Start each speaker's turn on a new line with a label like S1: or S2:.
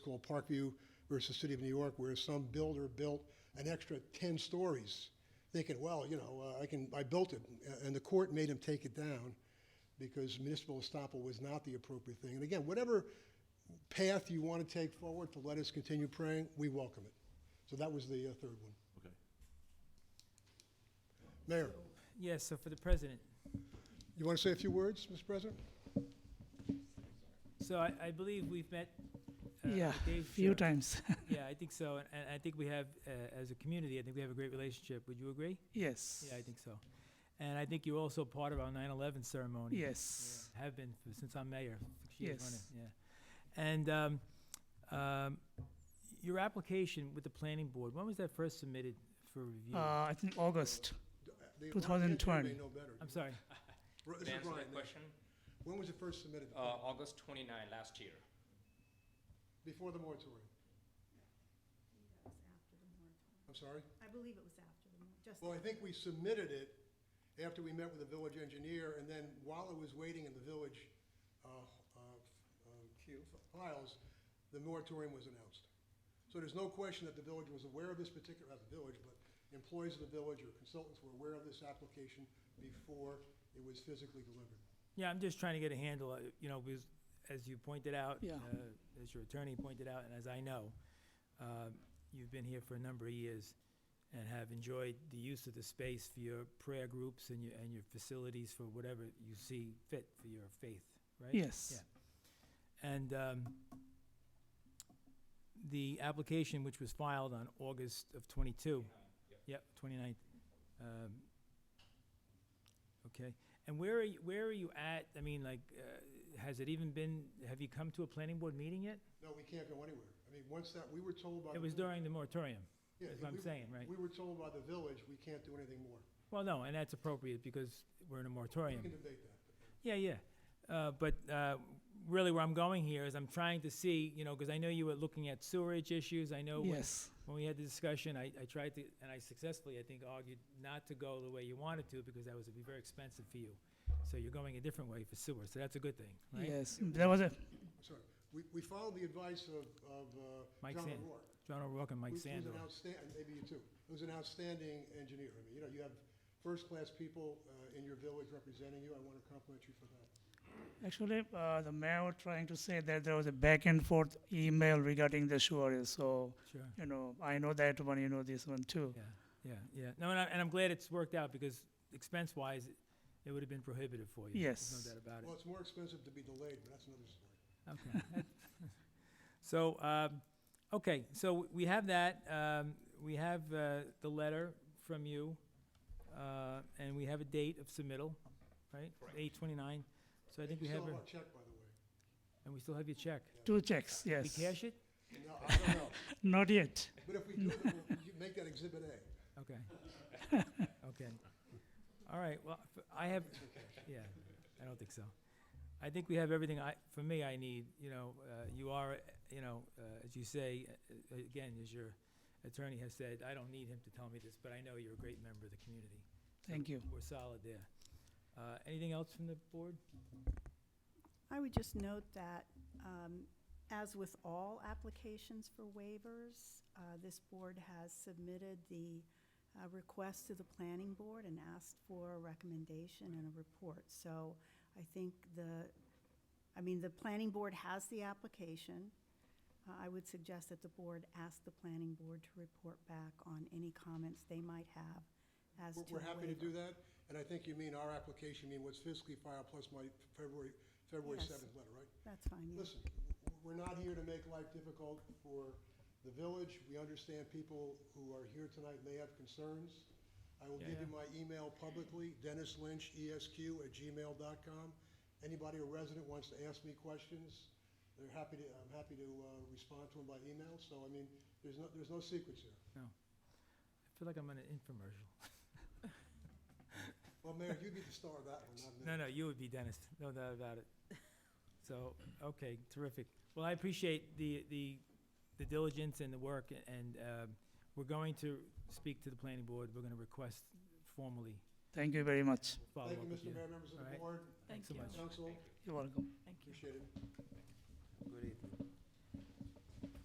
S1: called Parkview versus City of New York, where some builder built an extra 10 stories, thinking, well, you know, uh, I can, I built it, a- and the court made him take it down because municipal estoppel was not the appropriate thing. And again, whatever path you want to take forward to let us continue praying, we welcome it. So that was the uh, third one.
S2: Okay.
S1: Mayor,
S3: Yes, so for the president.
S1: you want to say a few words, Mr. President?
S3: So I, I believe we've met. uh,
S4: Yeah,
S3: with Dave,
S4: few
S3: sure.
S4: times.
S3: Yeah, I think so, and, and I think we have, uh, as a community, I think we have a great relationship. Would you agree?
S4: yes.
S3: Yeah, I think so. And I think you're also part of our 9/11 ceremony.
S4: Yes.
S3: Yeah, Have been for, since I'm mayor. six years
S4: Yes.
S3: running, Yeah. And um, um, your application with the planning board, when was that first submitted for review?
S4: Uh, I think August.
S1: The- the
S4: 2020.
S1: engineer may know better.
S3: I'm sorry.
S1: Ro- this
S5: To
S1: is
S5: answer
S1: Ryan.
S5: that question,
S1: When was it first submitted?
S5: uh, August 29 last year.
S1: Before the moratorium? I'm sorry?
S6: I believe it was after the, mo- just.
S1: Well, I think we submitted it after we met with the village engineer, and then while it was waiting in the village uh, uh, uh, files, the moratorium was announced. So there's no question that the village was aware of this particular, not the village, but employees of the village or consultants were aware of this application before it was physically delivered.
S3: Yeah, I'm just trying to get a handle, uh, you know, because as you pointed out,
S4: Yeah.
S3: uh, as your attorney pointed out, and as I know, uh, you've been here for a number of years and have enjoyed the use of the space for your prayer groups and your, and your facilities for whatever you see fit for your faith, right?
S4: Yes.
S3: And um, the application, which was filed on August of '22. Yep, 29th. Um, Okay. And where are, you- where are you at? I mean, like, uh, has it even been, have you come to a planning board meeting yet?
S1: No, we can't go anywhere. I mean, once that, we were told by.
S3: It
S1: the
S3: was
S1: vill-
S3: during the moratorium,
S1: Yeah,
S3: is what I'm
S1: we-
S3: saying, right?
S1: We were told by the village, we can't do anything more.
S3: Well, no, and that's appropriate because we're in a
S1: We
S3: moratorium.
S1: can debate that.
S3: Yeah, yeah. Uh, But uh, really where I'm going here is I'm trying to see, you know, because I know you were looking at sewerage issues. I know when-
S4: Yes.
S3: when we had the discussion, I, I tried to, and I successfully, I think, argued not to go the way you wanted to because that was, it'd be very expensive for you. So you're going a different way for sewer, so that's a good thing, right?
S4: Yes. There was a
S1: Sorry, we, we followed the advice of, of uh,
S3: Mike
S1: John
S3: Sand-
S1: O'Rourke.
S3: John O'Rourke and Mike
S1: who's-
S3: Sandor.
S1: Who's an outstanding, maybe you too, who's an outstanding engineer. I mean, you know, you have first-class people uh, in your village representing you. I want to compliment you for that.
S4: actually uh, the mayor was trying to say that there was a back and forth email regarding the sure. So
S3: Sure.
S4: you know, I know that one. You know this one too.
S3: Yeah, yeah, yeah. No, and, I, and I'm glad it's worked out because expense-wise, it would have been prohibitive for you. There's
S4: Yes.
S3: no doubt about it.
S1: Well, it's more expensive to be delayed, but that's another story.
S3: Okay. that- So, um, okay, so we have that, um, we have, uh, the letter from you, uh, and we have a date of submittal, right?
S5: Correct.
S3: Eight twenty-nine, so I think
S1: You
S3: we have,
S1: still
S3: a-
S1: have our check, by the way.
S3: and we still have your check.
S4: Two checks.
S3: We
S4: Yes.
S3: cash it?
S1: No, I don't know,
S4: Not yet.
S1: but if we do, then we'll you make that exhibit A.
S3: Okay. Okay. All right, well, f- I have, yeah, I don't think so. I think we have everything I, for me, I need, you know, uh, you are, uh, you know, uh, as you say, uh, uh, again, as your attorney has said, I don't need him to tell me this, but I know you're a great member of the community. So
S4: Thank you.
S3: We're solid there. Uh, Anything else from the board?
S6: I would just note that, um, as with all applications for waivers, uh, this board has submitted the, uh, request to the planning board and asked for a recommendation and a report. So I think the, I mean, the planning board has the application. Uh, I would suggest that the board ask the planning board to report back on any comments they might have as to
S1: We're-
S6: the
S1: We're happy to
S6: waiver.
S1: do that, and I think you mean our application, you mean what's physically filed plus my February, February
S6: Yes.
S1: 7th letter, right?
S6: That's fine, yeah.
S1: Listen, we're not here to make life difficult for the village. We understand people who are here tonight may have concerns. I will give you my email publicly, Dennis Lynch, ESQ at gmail.com. Anybody or resident wants to ask me questions, they're happy to, I'm happy to uh, respond to them by email. So, I mean, there's no, there's no secrets here.
S3: I feel like I'm on an infomercial.
S1: Well, Mayor, you'd be the star of that one, not me.
S3: No, no, you would be Dennis, no doubt about it. So, okay, terrific. Well, I appreciate the, the, the diligence and the work, a- and, um, we're going to speak to the planning board, we're gonna request formally
S4: Thank you very much.
S3: follow
S1: Thank
S3: up
S1: you,
S3: with
S1: Mr.
S3: you.
S1: Mayor, members of
S3: All
S1: the
S3: right.
S1: board,
S3: Thanks so much.
S1: council,
S4: You're welcome.
S1: appreciate it.
S7: Good evening.